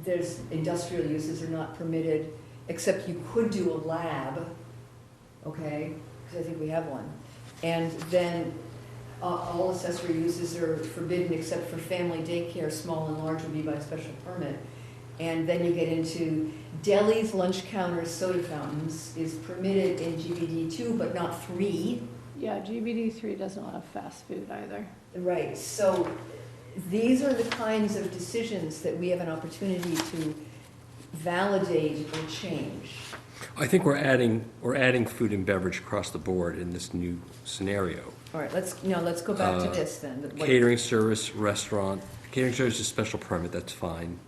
there's, industrial uses are not permitted, except you could do a lab, okay? Because I think we have one. And then uh, all accessory uses are forbidden except for family daycare, small and large would be by special permit. And then you get into delis, lunch counters, soda fountains is permitted in GBD two, but not three. Yeah, GBD three doesn't allow fast food either. Right, so these are the kinds of decisions that we have an opportunity to validate or change. I think we're adding, we're adding food and beverage across the board in this new scenario. All right, let's, now let's go back to Uh, this then. that what- Catering service, restaurant, catering service is special permit, that's fine.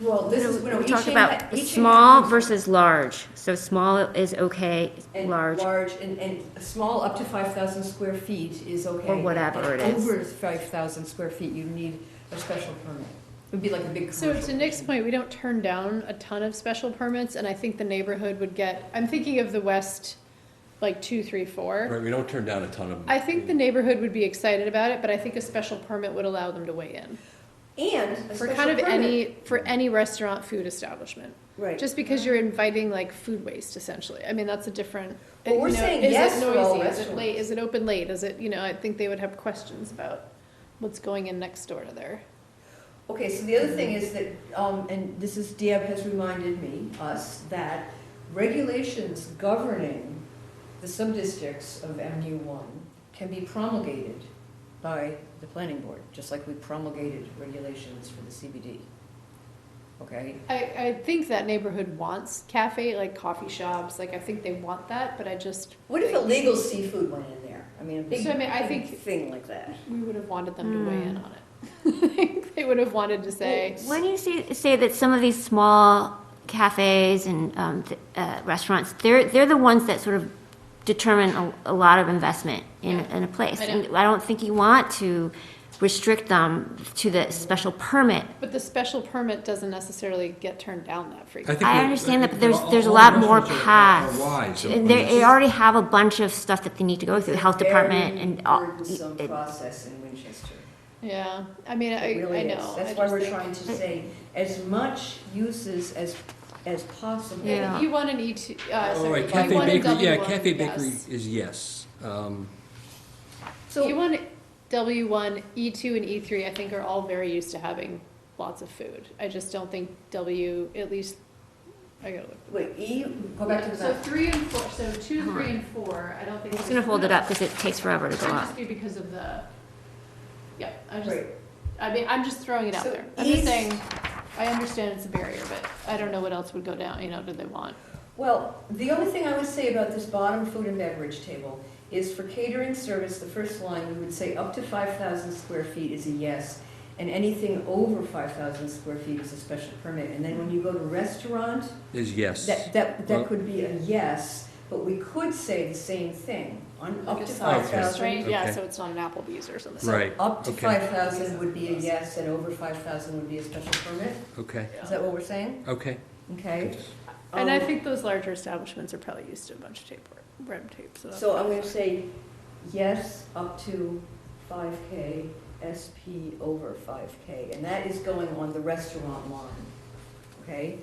Well, this is, no, We each talked in- about each in- small versus large. So small is okay, And large, large, and, and small up to five thousand square feet is okay. Or whatever it But is. Over five thousand square feet, you need a special permit. It would be like a big So commercial. to Nick's point, we don't turn down a ton of special permits, and I think the neighborhood would get, I'm thinking of the west, like two, three, four. Right, we don't turn down a ton of. I think the neighborhood would be excited about it, but I think a special permit would allow them to weigh in. And a For special kind of permit- any, for any restaurant food establishment. Right. Just because you're inviting like food waste essentially. I mean, that's a different. Well, we're you know, saying is it yes for all noisy? Is it restaurants. late? Is it open late? Is it, you know, I think they would have questions about what's going in next door to their. Okay, so the other thing is that, um, and this is, Deb has reminded me, us, that regulations governing the sub-districts of MU one can be promulgated by the planning board, just like we promulgated regulations for the CBD. Okay? I, I think that neighborhood wants cafe, like coffee shops, like I think they want that, but I just, What if illegal seafood went in there? I mean, a big, So, I mean, I big think- thing like that. we would have wanted them to weigh in Hmm. on it. They would have wanted to say, When you say, say that some of these small cafes and um, th- uh, restaurants, they're, they're the ones that sort of determine a, a lot of investment in, Yeah. in a place. I know. And I don't think you want to restrict them to the special permit. but the special permit doesn't necessarily get turned down that frequently. I understand that, but there's, there's a lot more paths. And they, they already have a bunch of stuff that they need to go through, health department and uh, all. Very burdensome process in Winchester. Yeah, I mean, I, It really I is. know. I That's why just we're think- trying to say as much uses as, as possible. Yeah. If you want an E two, uh, All sorry, Oh, right, if you cafe want a bakery, yeah, W one, cafe bakery yes. is yes. Um, You want W one, E two, and E three, I think are all very used to having lots of food. I just don't think W, at least, I gotta look. Wait, E, go back to the So map. three and four, so two, three, and four, I don't think. I'm just gonna hold it up because it takes forever to It go might up. just be because of the, yeah, I just, Right. I mean, I'm just throwing it out So there. I'm just each- saying, I understand it's a barrier, but I don't know what else would go down, you know, do they want? Well, the only thing I would say about this bottom food and beverage table is for catering service, the first line, we would say up to five thousand square feet is a yes, and anything over five thousand square feet is a special permit. And then when you go to restaurant, Is yes. that, that, Well- that could be a yes, but we could say the same thing, on up Like to a five size Okay. restraint, thousand. Yeah, Okay. so it's not an Applebee's or something. Right, Up to okay, five thousand would be a yes, and over five thousand would be a special permit, okay, is that what we're saying? okay. Okay. And I Um, think those larger establishments are probably used to a bunch of tape, red tape, so. that's- So I'm gonna say yes up to five K, SP over five K, and that is going on the restaurant line, okay?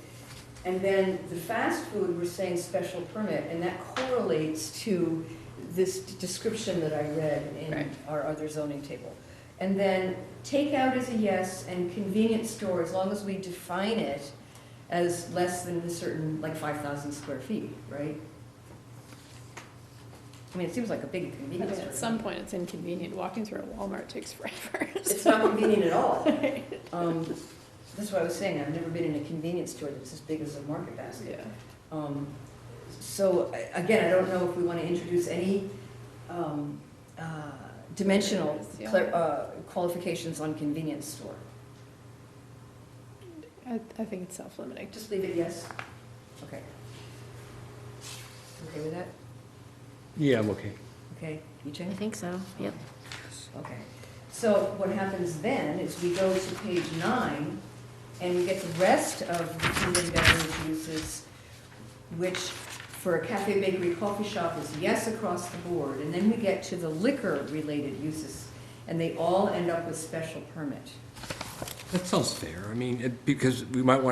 And then the fast food, we're saying special permit, and that correlates to this d- description that I read Right. in our other zoning table. And then takeout is a yes, and convenience store, as long as we define it as less than a certain, like five thousand square feet, right? I mean, it seems like a big I mean, convenience store. At some point, it's inconvenient. Walking through a Walmart takes forever. It's so- not convenient at all. Um, that's what I was saying, I've never been in a convenience store that's as big as a market basket. Yeah. Um, So, I- again, I don't know if we want to introduce any um, uh, dimensional Yeah. clar- uh, qualifications on convenience store. I, I think it's self-limiting. Just leave it yes? Okay. Okay with that? Yeah, I'm okay. Okay, you I change? think so, yep. Okay. So what happens then is we go to page nine, and we get the rest of the food and beverage uses, which for a cafe, bakery, coffee shop is yes across the board. And then we get to the liquor-related uses, and they all end up with special permit. That sounds fair. I mean, it- because we might want